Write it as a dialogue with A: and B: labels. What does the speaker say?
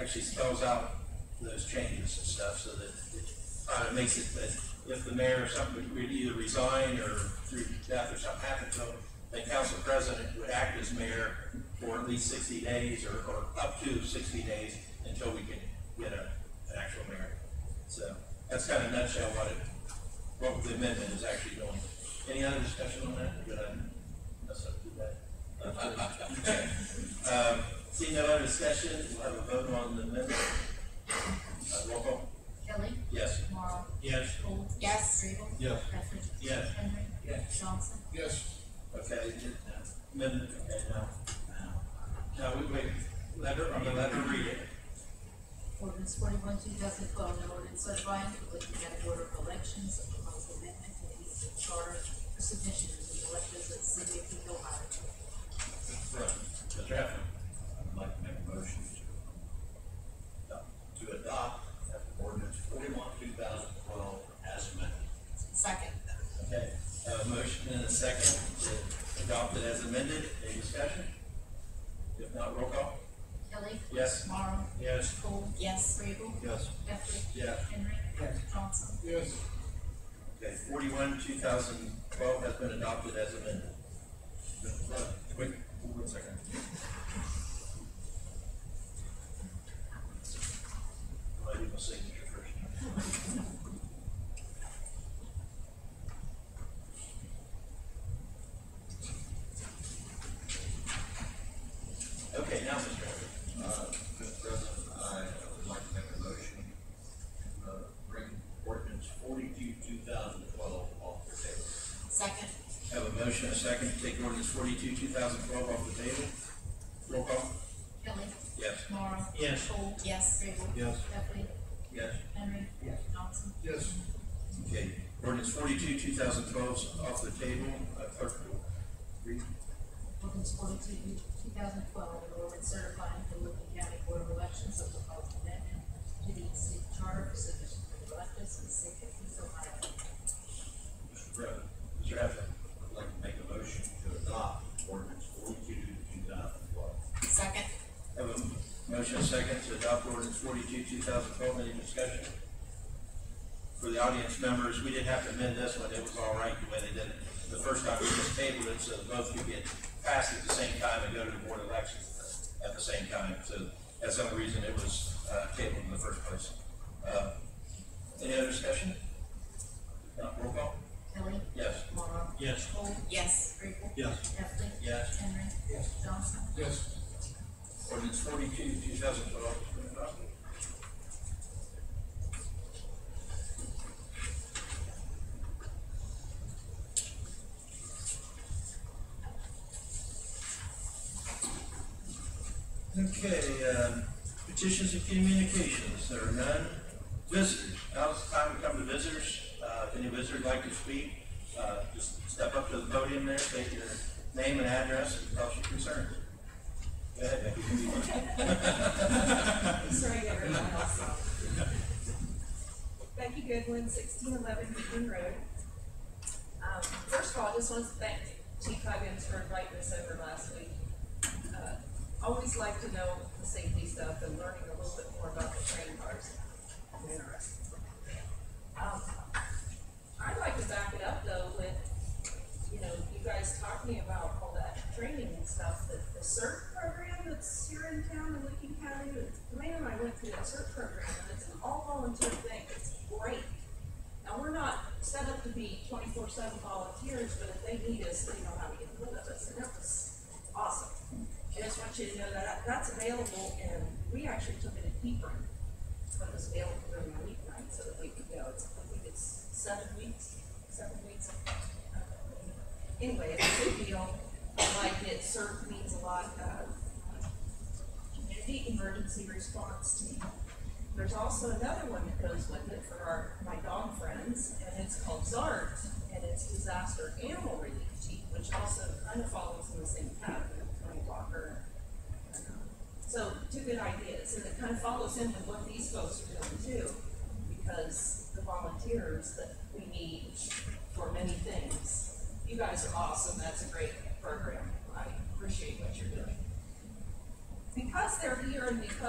A: actually spells out those changes and stuff, so that it uh, makes it that if the mayor or something would either resign or through death or something happened to him, the council president would act as mayor for at least sixty days or, or up to sixty days until we can get a, an actual mayor. So that's kind of nutshell what it, what the amendment is actually doing. Any other discussion on that? Good, I messed up too bad. Um, Seeing no other discussion, we'll have a vote on the amendment. Uh, Roll call.
B: Kelly.
A: Yes.
B: Tomorrow.
A: Yes.
B: Cole.
C: Yes.
B: Rabel.
A: Yes.
B: Heffernan.
A: Yes.
B: Henry.
A: Yes.
B: Johnson.
D: Yes.
A: Okay, amendment, okay, now. Now, we, wait, let her, I'm gonna let her read it.
B: Ordinance forty-one, two thousand twelve, an ordinance certifying the Lincoln County Board of Elections, a proposed amendment to the Eastern Charter for submission to the electors of the city of Eagle, Ohio.
A: Right. Mr. Heffernan.
E: I'd like to make a motion to, uh, to adopt ordinance forty-one, two thousand twelve as amended.
C: Second.
A: Okay, uh, motion and a second to adopt it as amended. Any discussion? If not, roll call.
B: Kelly.
A: Yes.
B: Tomorrow.
A: Yes.
B: Cole.
C: Yes.
B: Rabel.
E: Yes.
B: Heffernan.
A: Yeah.
B: Henry. Johnson.
D: Yes.
A: Okay, forty-one, two thousand twelve has been adopted as amended. Wait, one second. I do my signature first. Okay, now, Mr. Henry.
E: Uh, Mr. President, I would like to make a motion to, uh, bring ordinance forty-two, two thousand twelve off the table.
C: Second.
A: Have a motion, a second, to take ordinance forty-two, two thousand twelve off the table. Roll call.
B: Kelly.
A: Yes.
B: Tomorrow.
A: Yes.
B: Cole.
C: Yes.
B: Rabel.
E: Yes.
B: Heffernan.
A: Yes.
B: Henry. Johnson.
D: Yes.
A: Okay, ordinance forty-two, two thousand twelve is off the table, uh, clerk will read.
B: Ordinance forty-two, two thousand twelve, an ordinance certifying the Lincoln County Board of Elections of the proposed amendment to the city charter for submission to the electors of the city of East Ohio.
E: Mr. President,
A: Mr. Heflin.
E: I'd like to make a motion to adopt ordinance forty-two, two thousand twelve.
C: Second.
A: Have a motion and second to adopt ordinance forty-two, two thousand twelve, any discussion? For the audience members, we didn't have to amend this one, it was all right the way they did it. The first time we just tabled it, so both could get passed at the same time and go to the board of elections at the same time. So that's the only reason it was, uh, tabled in the first place. Uh, Any other discussion? If Not roll call?
B: Kelly.
A: Yes.
B: Tomorrow.
A: Yes.
B: Cole.
C: Yes.
B: Riegel.
E: Yes.
B: Hefley.
A: Yes.
B: Henry.
D: Yes.
B: Johnson.
D: Yes.
A: Ordinance forty-two, two thousand twelve has been adopted. Okay, um, petitions and communications, there are none. Visitors, now's the time to come to visitors. Uh, if any visitor would like to speak, uh, just step up to the podium there, state your name and address, and tell us your concerns. Go ahead, Becky.
F: Sorry, everyone else. Becky Goodwin, sixteen eleven Beacon Road. Um, first of all, I just want to thank Chief Huggins for inviting us over last week. Uh, Always like to know the safety stuff and learning a little bit more about the train cars. I'm interested. Um, I'd like to back it up though with, you know, you guys talking about all that training and stuff, that the CERT program that's here in town in Lincoln County, the man and I went through that CERT program, and it's an all volunteer thing, it's great. Now, we're not set up to be twenty-four seven volunteers, but if they need us, they know how to get rid of us, and that was awesome. I just want you to know that that's available, and we actually took it in Hebron when it was available during the weeknight, so that we could go, it's, I think it's seven weeks, seven weeks. Anyway, it's a good deal, I like it, CERT means a lot, uh, community emergency response team. There's also another one that goes with it for our, my dog friends, and it's called ZART, and it's Disaster Animal Relief Team, which also kind of follows in the same pattern of Tony Walker. So, two good ideas, and it kind of follows in with what these folks are doing too, because the volunteers that we need for many things, you guys are awesome, that's a great program, I appreciate what you're doing because they're here and because